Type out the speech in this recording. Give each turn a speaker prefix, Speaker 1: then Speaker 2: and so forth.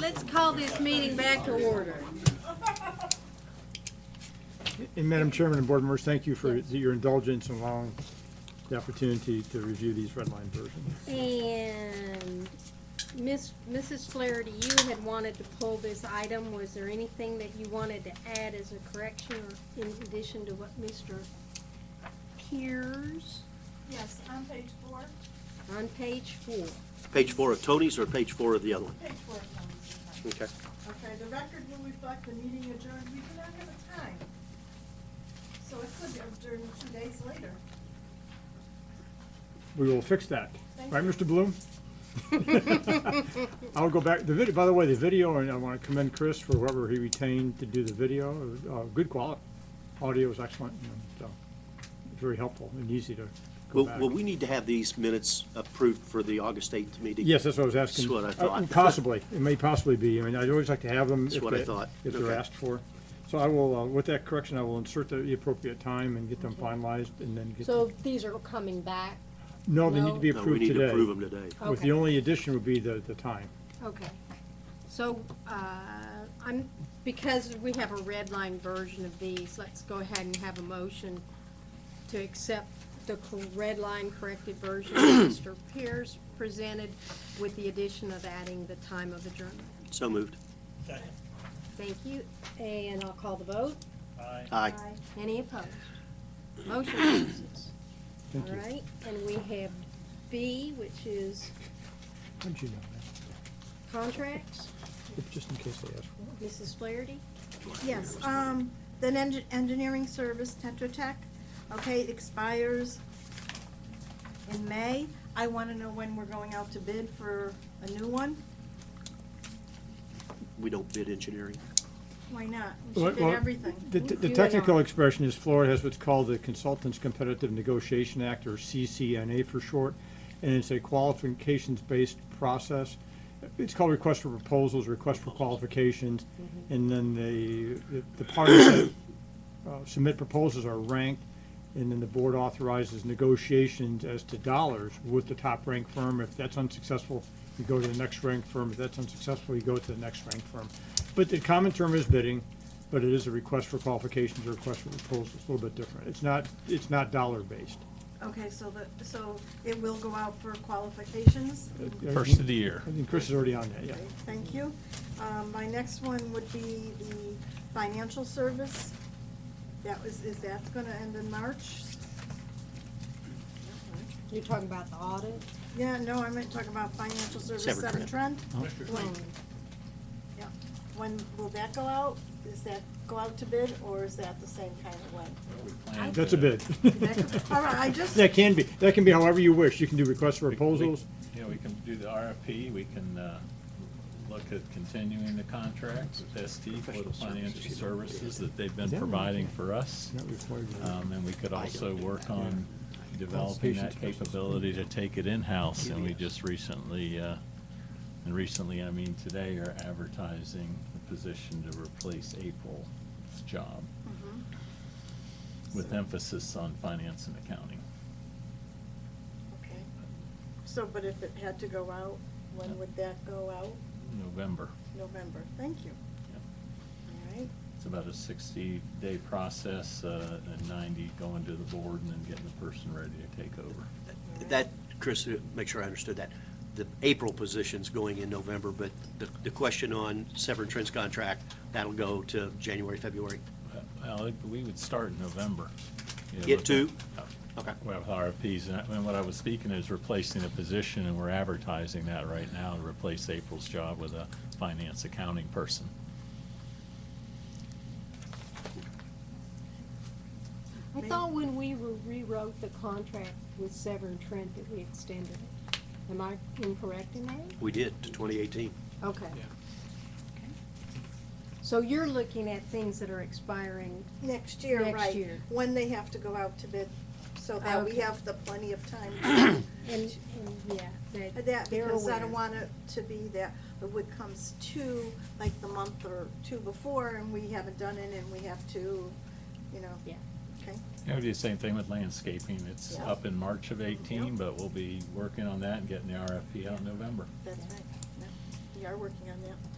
Speaker 1: Let's call this meeting back to order.
Speaker 2: And Madam Chairman and board members, thank you for your indulgence in allowing the opportunity to review these redline versions.
Speaker 1: And Miss, Mrs. Flaherty, you had wanted to pull this item. Was there anything that you wanted to add as a correction or in addition to what Mr. Piers
Speaker 3: Yes, on page four,
Speaker 1: on page four?
Speaker 4: Page four of Tony's or page four of the other one?
Speaker 3: page four. of numbers.
Speaker 4: Okay.
Speaker 3: Okay, the record will reflect the meeting adjourned, we do not have a time. So it could be adjourned two days later.
Speaker 2: We will fix that.
Speaker 3: Thank
Speaker 2: Right, Mr. Bloom? I'll go back, the video, by the way, the video, and I want to commend Chris for whoever he retained to do the video, uh, good quality. Audio was excellent, and so, very helpful and easy to go
Speaker 4: Will,
Speaker 2: back.
Speaker 4: will we need to have these minutes approved for the August 8th meeting?
Speaker 2: Yes, that's what I was asking.
Speaker 4: That's what I
Speaker 2: Uh,
Speaker 4: thought.
Speaker 2: Possibly, it may possibly be, I mean, I'd always like to have them.
Speaker 4: That's
Speaker 2: if
Speaker 4: what I
Speaker 2: they-
Speaker 4: thought.
Speaker 2: If they're
Speaker 4: Okay.
Speaker 2: asked for. So I will, uh, with that correction, I will insert the the appropriate time and get them finalized and then get.
Speaker 1: So
Speaker 2: them-
Speaker 1: these are coming back?
Speaker 2: No, they need
Speaker 1: no.
Speaker 2: to be
Speaker 4: No, we
Speaker 2: approved
Speaker 4: need to
Speaker 2: today.
Speaker 4: approve them today.
Speaker 2: With
Speaker 1: Okay.
Speaker 2: the only addition would be the, the time.
Speaker 1: Okay. So, uh, I'm, because we have a red line version of these, let's go ahead and have a motion to accept the cor- red line corrected version that Mr. Pierce presented with the addition of adding the time of adjournment.
Speaker 4: So moved.
Speaker 1: Thank you, and I'll call the vote.
Speaker 4: Aye.
Speaker 1: Any opposed? Motion passes.
Speaker 2: Thank
Speaker 1: All
Speaker 2: you.
Speaker 1: right, and we have B, which is
Speaker 2: How'd you know that?
Speaker 1: contracts.
Speaker 2: If- Just in case they ask for it.
Speaker 1: Mrs. Flaherty?
Speaker 3: Yes, um, then eng- engineering service Tetra Tech, okay, expires in May. I wanna know when we're going out to bid for a new one.
Speaker 4: We don't bid engineering.
Speaker 3: Why not? We should
Speaker 2: Well,
Speaker 3: bid
Speaker 2: well,
Speaker 3: everything.
Speaker 2: The,
Speaker 3: You
Speaker 2: the
Speaker 3: and
Speaker 2: technical
Speaker 3: I.
Speaker 2: expression is Florida has what's called the Consultants Competitive Negotiation Act, or CCNA for short, and it's a qualifications-based process. It's called request for proposals, request for qualifications, and then the, the- the parties that uh, submit proposals are ranked, and then the board authorizes negotiations as to dollars with the top-ranked firm. If that's unsuccessful, you go to the next ranked firm. If that's unsuccessful, you go to the next ranked firm. But the common term is bidding, but it is a request for qualifications or request for proposals. It's a little bit different. It's not, it's not dollar-based.
Speaker 3: Okay, so the, so it will go out for qualifications?
Speaker 5: First of the year.
Speaker 2: I think Chris is already on that, yeah.
Speaker 3: Okay, Thank you. Um, My next one would be the financial service. That was, is that going to end in March?
Speaker 1: You're talking about the audit?
Speaker 3: Yeah, no, I meant talk about financial service,
Speaker 4: Seven
Speaker 3: Seven
Speaker 4: Trent.
Speaker 3: Trent.
Speaker 1: Well,
Speaker 3: Yeah. When will that go out? Is that go out to bid, or is that the same kind of way?
Speaker 2: That's a bid.
Speaker 3: That- All right, I just,
Speaker 2: That can be, that can be however you wish. You can do requests for proposals.
Speaker 5: Yeah, we can do the RFP, we can uh, look at continuing the contract with ST for the financial services that they've been providing for us.
Speaker 2: Not required.
Speaker 5: Um, And we could also work on developing that capability to take it in-house. And we just recently, uh, and recently, I mean today, are advertising the position to replace April's job with emphasis on finance and accounting.
Speaker 3: okay. So, but if it had to go out, when would that go out?
Speaker 5: November.
Speaker 3: November. Thank you.
Speaker 5: Yeah.
Speaker 3: All right.
Speaker 5: It's about a 60-day process, uh, and 90 going to the board and then getting the person ready to take over.
Speaker 4: That, Chris, uh, make sure I understood that. The April position's going in November, but the, the question on Severn Trent's contract, that'll go to January, February.
Speaker 5: Uh, Well, it- we would start in November. you know,
Speaker 4: Get
Speaker 5: with
Speaker 4: to-
Speaker 5: the- uh,
Speaker 2: Oh.
Speaker 4: Okay.
Speaker 5: Well, with RFPs, and I- and what I was speaking is replacing a position, and we're advertising that right now, to replace April's job with a finance accounting person.
Speaker 1: I thought when we re- rewrote the contract with Severn Trent that we extended it. Am I incorrect in that?
Speaker 4: We did to 2018.
Speaker 1: Okay. So you're looking at things that are expiring.
Speaker 3: Next year,
Speaker 1: Next
Speaker 3: right.
Speaker 1: year.
Speaker 3: When they have to go out to bid, so that we
Speaker 1: Okay.
Speaker 3: have the plenty of time
Speaker 1: And, and, yeah,
Speaker 3: to
Speaker 1: that.
Speaker 3: that,
Speaker 1: they're
Speaker 3: because I
Speaker 1: aware.
Speaker 3: don't want it to be that the wood comes to, like the month or two before, and we haven't done it, and we have to, you know.
Speaker 1: Yeah.
Speaker 3: Okay,
Speaker 5: You know, we do the same thing with landscaping. It's
Speaker 3: Yeah.
Speaker 5: up in March of 18,
Speaker 3: Yeah.
Speaker 5: but we'll be working on that and getting the RFP out in November.
Speaker 3: that's right. Yeah, We are working on that.